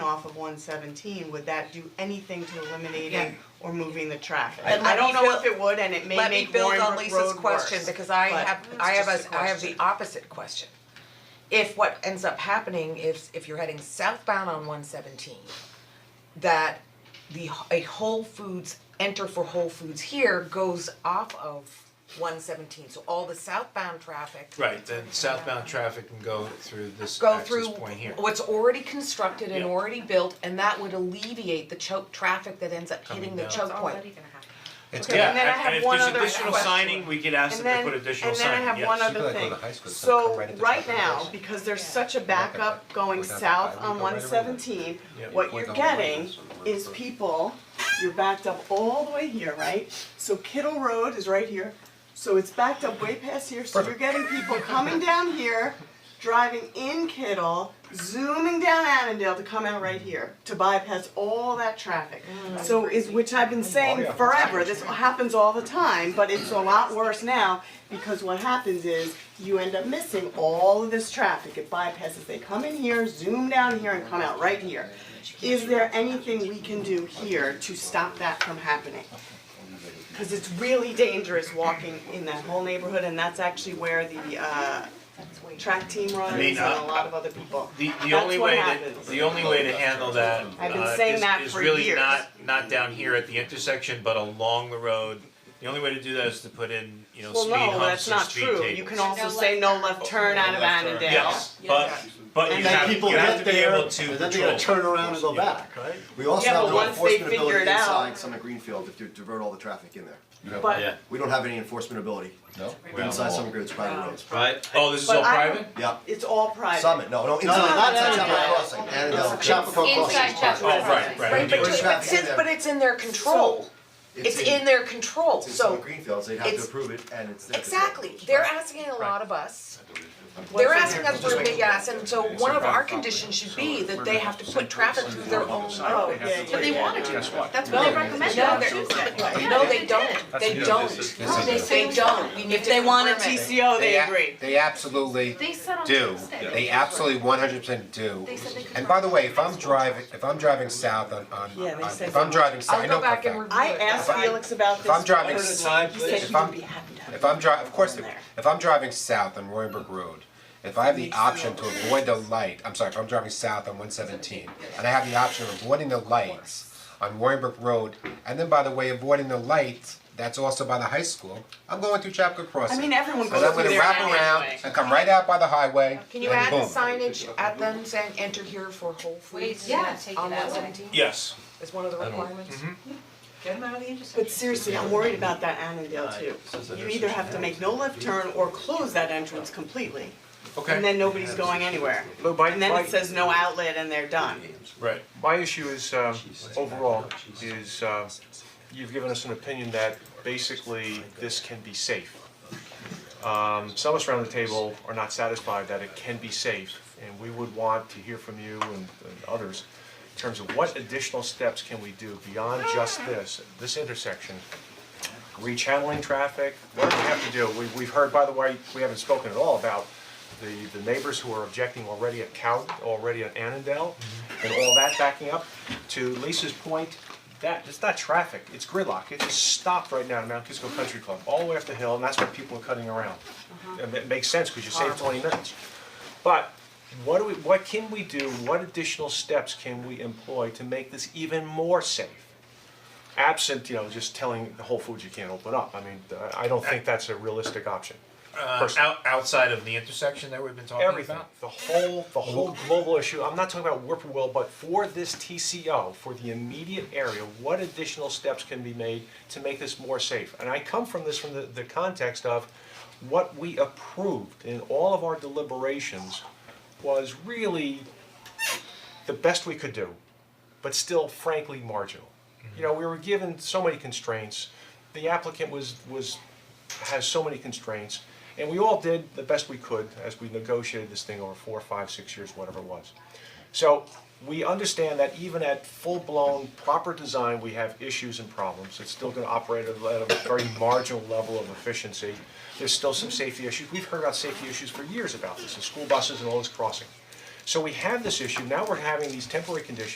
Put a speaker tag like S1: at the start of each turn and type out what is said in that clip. S1: off of one seventeen, would that do anything to
S2: Yeah.
S1: eliminating or moving the traffic?
S2: And
S1: I
S2: let
S1: don't
S2: me
S1: know if
S2: build-
S1: it would, and it may
S2: Let me
S1: make
S2: build
S1: Warren
S2: on
S1: Brook
S2: Lisa's
S1: Road
S2: question,
S1: worse,
S2: because I
S1: but-
S2: have, I have
S1: just
S2: a,
S1: a
S2: I have the
S1: question.
S2: opposite question. If what ends up happening is, if you're heading southbound on one seventeen, that the, h- a Whole Foods, enter for Whole Foods here goes off of one seventeen, so all the southbound traffic
S3: Right, then southbound traffic can go through this
S2: go
S3: access
S2: through
S3: point here.
S2: what's already constructed and
S3: Yeah.
S2: already built, and that would alleviate the choke, traffic that ends up hitting
S3: Coming
S2: the
S3: down.
S2: choke point.
S4: It's
S1: Okay, and then I have one other question.
S3: we could ask
S1: And then, and then I have one
S4: You
S1: other
S4: gotta go to high
S1: thing,
S4: school, so
S1: so
S4: come right into
S1: right
S4: Tucker
S1: now,
S4: Place.
S1: because there's such a
S4: back up,
S1: backup
S4: go
S1: going
S4: down the
S1: south
S4: highway,
S1: on
S4: go right
S1: one
S4: over there.
S1: seventeen,
S3: Yeah.
S1: what
S4: Or
S1: you're
S4: the
S1: getting
S4: Waylands on
S1: is
S4: Westbrook.
S1: people, you're backed up all the way here, right? So Kittle Road is right here, so it's backed up way past here, so you're getting people coming down here, driving in Kittle, zooming down Annandale to come out right here, to bypass all that traffic. So is, which I've
S3: Oh,
S1: been saying forever, this happens all the time, but it's a lot worse now, because what happens is, you end up missing all of this traffic, it bypasses, they come in here, zoom down here and come out right here. Is there anything we can do here to stop that from happening? Cause it's really dangerous walking in that whole neighborhood and that's actually where the uh track team runs
S3: mean,
S1: and a
S3: uh,
S1: lot of other people.
S3: The the
S1: That's
S3: only
S1: what
S3: way that,
S1: happens.
S3: the only way to handle that
S1: I've been
S3: uh,
S1: saying
S3: is-
S1: that
S3: is
S1: for
S3: really
S1: years.
S3: not, not down here at the intersection, but along the road. The only way to do that is to put in, you know,
S1: Well,
S3: speed
S1: no,
S3: humps
S1: that's
S3: or
S1: not
S3: speed
S1: true, you
S3: tables.
S1: can also
S5: No
S1: say no left turn out of Annandale.
S3: Yes, but but you
S1: And then
S3: have,
S6: people
S3: you have to
S6: get
S3: be
S6: there,
S3: able
S6: and
S3: to control.
S6: then they gotta turn around and go back, right?
S7: We also
S1: Yeah,
S7: have
S1: but
S7: no
S1: once they
S7: enforcement
S1: figure
S7: ability
S1: it out-
S7: inside Summit Greenfield if you divert all the traffic in there.
S1: But
S7: We don't have any enforcement ability
S4: No.
S7: inside Summit Greenfield's private roads.
S3: Right, oh, this is
S1: But
S3: all
S1: I-
S3: private?
S7: Yeah,
S1: it's all private.
S7: Summit, no, no, inside,
S6: no,
S7: not
S6: no,
S7: inside
S6: no,
S7: Chapel
S6: no.
S7: Crossing, Annandale, Chapel
S5: Inside
S7: Crossing.
S5: Chapel
S3: Oh, right, right.
S2: Right, but
S7: We're
S2: it- but
S7: trapped in
S2: since,
S7: there.
S2: but it's in their control, it's in their control,
S7: It's in
S2: so,
S7: Summit Greenfield, so you'd have to
S2: it's-
S7: approve it and it's their control.
S2: exactly, they're asking a lot of us.
S1: What's in
S2: They're asking
S1: there?
S2: us for a big ass, and so one of our conditions should be that they have to put traffic through their own
S1: Oh,
S2: road.
S1: yeah, yeah,
S5: But they
S1: yeah.
S5: wanna do
S6: Guess what?
S5: that, that's what they recommended
S2: No,
S5: on
S2: they're-
S5: Tuesday.
S2: No, they don't, they
S6: Yeah,
S2: don't,
S6: this is-
S4: This is
S5: They
S4: it.
S5: say
S2: they don't, we need
S1: If they want a
S2: confirm it.
S1: TCO, they
S4: a-
S1: agree.
S4: They absolutely
S5: They said on
S4: do,
S5: Tuesday.
S4: they absolutely one hundred percent do.
S5: They said they could
S4: And by the way, if I'm driving, if I'm driving south on on,
S1: Yeah, they
S4: on-
S1: said
S4: if I'm
S1: so.
S4: driving south, I
S2: I'll
S4: know
S2: go
S4: for a
S2: back and
S4: fact-
S2: review it.
S1: I asked
S2: If I-
S1: Felix about this.
S4: if I'm driving
S1: first.
S4: s-
S1: He said he
S4: if I'm-
S1: would be happy to have
S4: If I'm dri- of course, if,
S1: Down there.
S4: if I'm driving south on Roybrook Road, if I have the option to avoid the light, I'm sorry, if I'm driving south on one seventeen, and I have the option of avoiding the lights on Roybrook Road, and then by the way, avoiding the light that's also by the high school, I'm going through Chapco Crossing.
S1: I mean, everyone
S4: And
S1: goes
S4: I'm
S1: through
S4: gonna
S1: there
S4: wrap around
S1: anyway.
S4: and come right out by the highway,
S2: Can you
S4: and
S2: add the
S4: boom.
S2: signage at them saying enter here for Whole Foods?
S5: yeah, take it
S2: On
S5: that
S2: one
S5: way.
S2: seventeen
S3: Yes.
S2: is one of the requirements?
S5: Get them out of the intersection.
S1: But seriously, I'm worried about that Annandale too. You either have to make no left turn or close that entrance completely.
S3: Okay.
S1: And then nobody's going anywhere.
S8: Lou, my-
S1: And then
S8: my-
S1: it says no outlet and they're done.
S3: Right.
S8: My issue is um overall is uh you've given us an opinion that basically this can be safe. Um some of us around the table are not satisfied that it can be safe and we would want to hear from you and and others in terms of what additional steps can we do beyond just this, this intersection? Rechanneling traffic, what do we have to do? We we've heard, by the way, we haven't spoken at all about the the neighbors who are objecting already at Cow, already at Annandale, and all that backing up. To Lisa's point, that, it's not traffic, it's gridlock, it is stopped right now at Mount Kisco Country Club, all the way up the hill, and that's why people are cutting around. And it makes sense, because you save twenty minutes. But what do we, what can we do, what additional steps can we employ to make this even more safe? Absent, you know, just telling the Whole Foods you can't open up, I mean, I I don't think that's a realistic option.
S3: Uh,
S8: Person-
S3: out, outside of the intersection that we've been talking about?
S8: everything, the whole, the whole global issue, I'm not talking about whippoorwill, but for this TCO, for the immediate area, what additional steps can be made to make this more safe? And I come from this from the, the context of what we approved in all of our deliberations was really the best we could do, but still frankly marginal. You know, we were given so many constraints, the applicant was, was, has so many constraints, and we all did the best we could as we negotiated this thing over four, five, six years, whatever it was. So, we understand that even at full-blown proper design, we have issues and problems, it's still gonna operate at a at a very marginal level of efficiency. There's still some safety issues, we've heard about safety issues for years about this, and school buses and all this crossing. So we have this issue, now we're having these temporary conditions